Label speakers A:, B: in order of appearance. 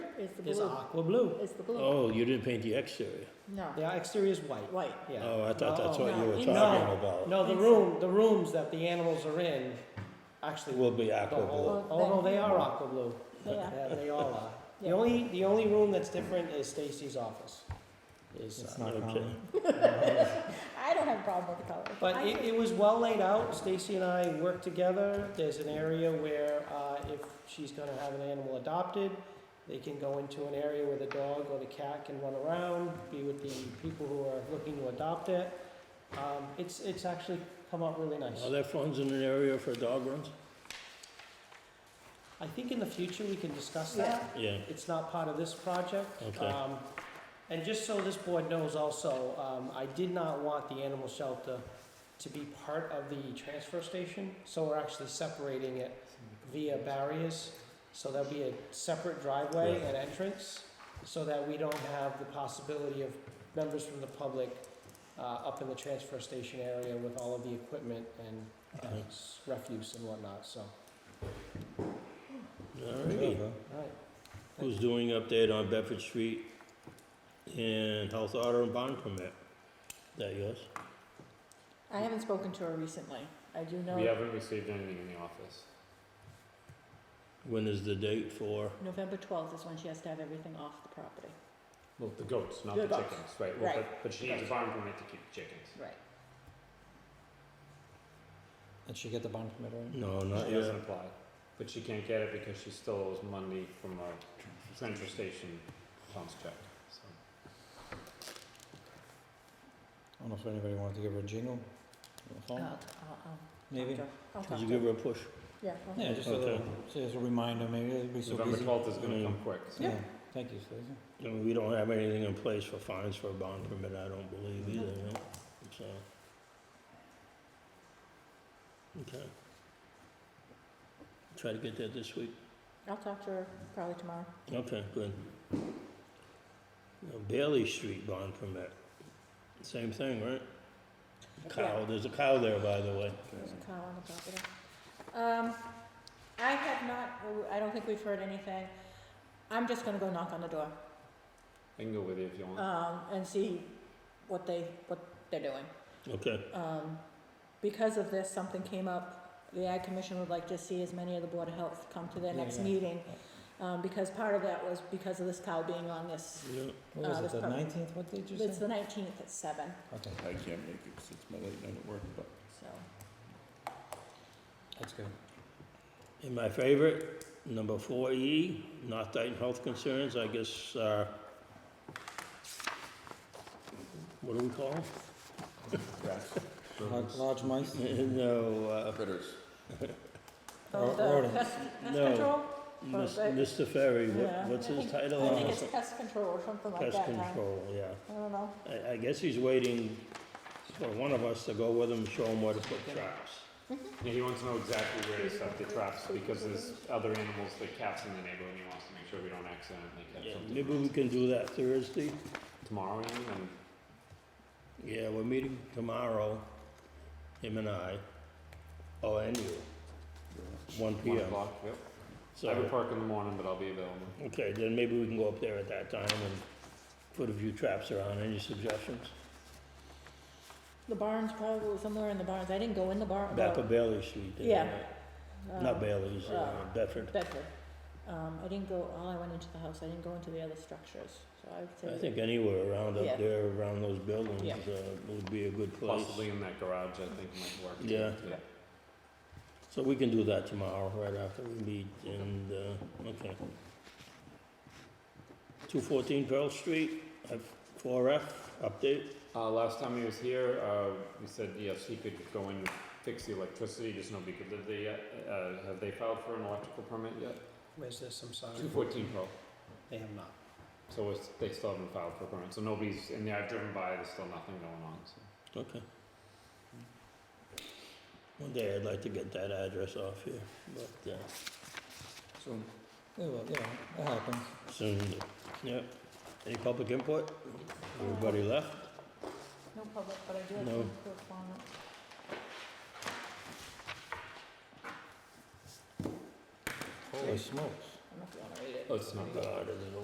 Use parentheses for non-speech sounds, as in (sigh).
A: is the
B: is
A: blue.
B: aqua blue.
A: Is the blue.
C: Oh, you didn't paint the exterior.
A: No,
B: The exterior is white.
A: white.
B: Yeah.
C: Oh, I thought that's what you were
A: No,
C: talking
B: no.
C: about.
B: No, the room, the rooms that the animals are in, actually.
C: Will be
B: the
C: aqua blue.
B: whole- Oh, no, they are aqua blue.
A: Yeah.
B: Yeah, they all are.
A: (laughs)
B: The
A: Yeah.
B: only, the only room that's different is Stacy's office. Is,
D: It's
B: uh,
D: not
C: okay.
D: common.
A: I don't have a problem with the color.
B: But
A: I
B: it,
A: think-
B: it was well laid out, Stacy and I worked together, there's an area where, uh, if she's gonna have an animal adopted, they can go into an area where the dog or the cat can run around, be with the people who are looking to adopt it. Um, it's, it's actually come out really nice.
C: Are there funds in an area for dog runs?
B: I think in the future, we can discuss
A: Yeah.
B: that,
C: Yeah.
B: it's not part of this project.
C: Okay.
B: Um, And just so this board knows also, um, I did not want the animal shelter to be part of the transfer station, so we're actually separating it via barriers. So there'll be a separate driveway
C: Yeah.
B: and entrance, so that we don't have the possibility of members from the public uh, up in the transfer station area with all of the equipment and uh,
C: Okay.
B: s- refuse and whatnot, so.
C: All right.
B: All right.
C: Who's doing update on Bedford Street and health order and bond permit? That yours?
A: I haven't spoken to her recently. I do
E: We
A: know
E: haven't received anything in the office.
C: When is the date for?
A: November twelfth is when she has to have everything off the property.
E: Well, the goats, not
A: The
E: the
A: goats.
E: chickens, right, well,
A: Right.
E: but, but she needs a barn permit to keep the chickens.
A: Right.
D: And she get the bond permit, right?
C: No, not
E: She
C: yet.
E: doesn't apply, but she can't get it because she still owes money from a transfer station funds check, so.
D: I don't know if anybody wanted to give her a jingle on the
A: I'll,
D: phone,
A: I'll, I'll.
D: maybe?
A: talk to her. I'll talk
C: Did you
A: to
C: give her a push?
A: Yeah. I'll-
D: Yeah, just a
C: Okay.
D: little, just a reminder, maybe it'd be so
E: November
D: busy.
E: twelfth is gonna come
C: Mm.
E: quick, so.
D: Yeah, thank you, Stacy.
C: I mean, We don't have anything in place for fines for a bond permit, I don't believe either, you know, so. Okay. Try to get that this week.
A: I'll talk to her probably tomorrow.
C: Okay, good. Now, Bailey Street bond permit, same thing, right? Cow, there's a cow there, by the way.
A: There's a cow on the property. Um, I have not, I don't think we've heard anything. I'm just gonna go knock on the door,
E: I can go with you if you want.
A: um, and see what they, what they're doing.
C: Okay,
A: Um, because of this, something came up, the Ag Commission would like to see as many of the Board of Health come to their
D: Yeah,
A: next
D: yeah.
A: meeting. Um, because part of that was because of this cow being on this,
C: yeah,
D: What
A: Uh,
D: was
A: that's
D: it, the
A: probably-
D: nineteenth, what did you
A: it's
D: say?
A: the nineteenth at seven,
D: Okay,
F: I can't make it 'cause it's my late night at work, but
A: so.
D: that's good.
C: and my favorite, number four E, not Dayton health concerns, I guess, uh, what do we call 'em?
F: rats,
D: Lar- Large mice?
C: (laughs) No, uh,
F: critters.
D: Ro-
A: Oh, the
D: rodents.
A: pest, pest
C: No.
A: control?
C: Mis-
A: Well, they-
C: Mr. Ferry,
A: Yeah.
C: what, what's his title?
A: I
C: on
A: think
C: this?
A: it's pest control or something like that.
C: Pest
A: huh?
C: control, yeah.
A: I don't know.
C: I, I guess he's waiting for one of us to go with him, and show him where to put traps.
E: Yeah, he wants to know exactly where to set the traps because there's other animals, like cats in the neighborhood, and he wants to make sure we don't accidentally catch
C: Yeah,
E: something.
C: Maybe we can do that Thursday?
E: Tomorrow, you mean, and
C: Yeah, we're meeting tomorrow, him and I. Oh, and you, one P
E: one
C: M.
E: o'clock, yep. I would
C: So,
E: park in the morning, but I'll be available.
C: okay, then maybe we can go up there at that time and put a few traps around. Any suggestions?
A: The barns probably, somewhere in the barns. I didn't go in the barn.
C: Back of Bailey Street there.
A: Uh, Yeah.
C: right? Not Bailey's, uh,
A: uh,
C: Bedford.
A: Bedford. Um, I didn't go, all I went into the house, I didn't go into the other structures, so I would say.
C: I think anywhere around
A: Yeah.
C: up there, around those buildings,
A: Yeah.
C: uh, would be a good place.
E: Possibly in that garage, I think might work.
C: Yeah.
E: Yeah.
C: So we can do that tomorrow, right after we meet, and, uh, okay. Two fourteen Pearl Street, four F, update,
E: Uh, last time he was here, uh, we said, yes, he could go and fix the electricity, just nobody could live there yet. Uh, have they filed for an electrical permit yet?
B: Where's this, I'm sorry?
E: Two fourteen pro,
B: They have not.
E: so it's, they still haven't filed for a permit, so nobody's, and I've driven by, there's still nothing going on, so.
C: okay. One day I'd like to get that address off here, but, uh,
F: So
D: Yeah, well, yeah, that happens.
C: soon, yeah. Any public input? Everybody left?
A: No public, but I do have
C: No.
A: some correspondence.
D: Holy smokes.
A: I'm not gonna read it.
E: Oh, it's not Oh,
C: Uh, God, I don't know.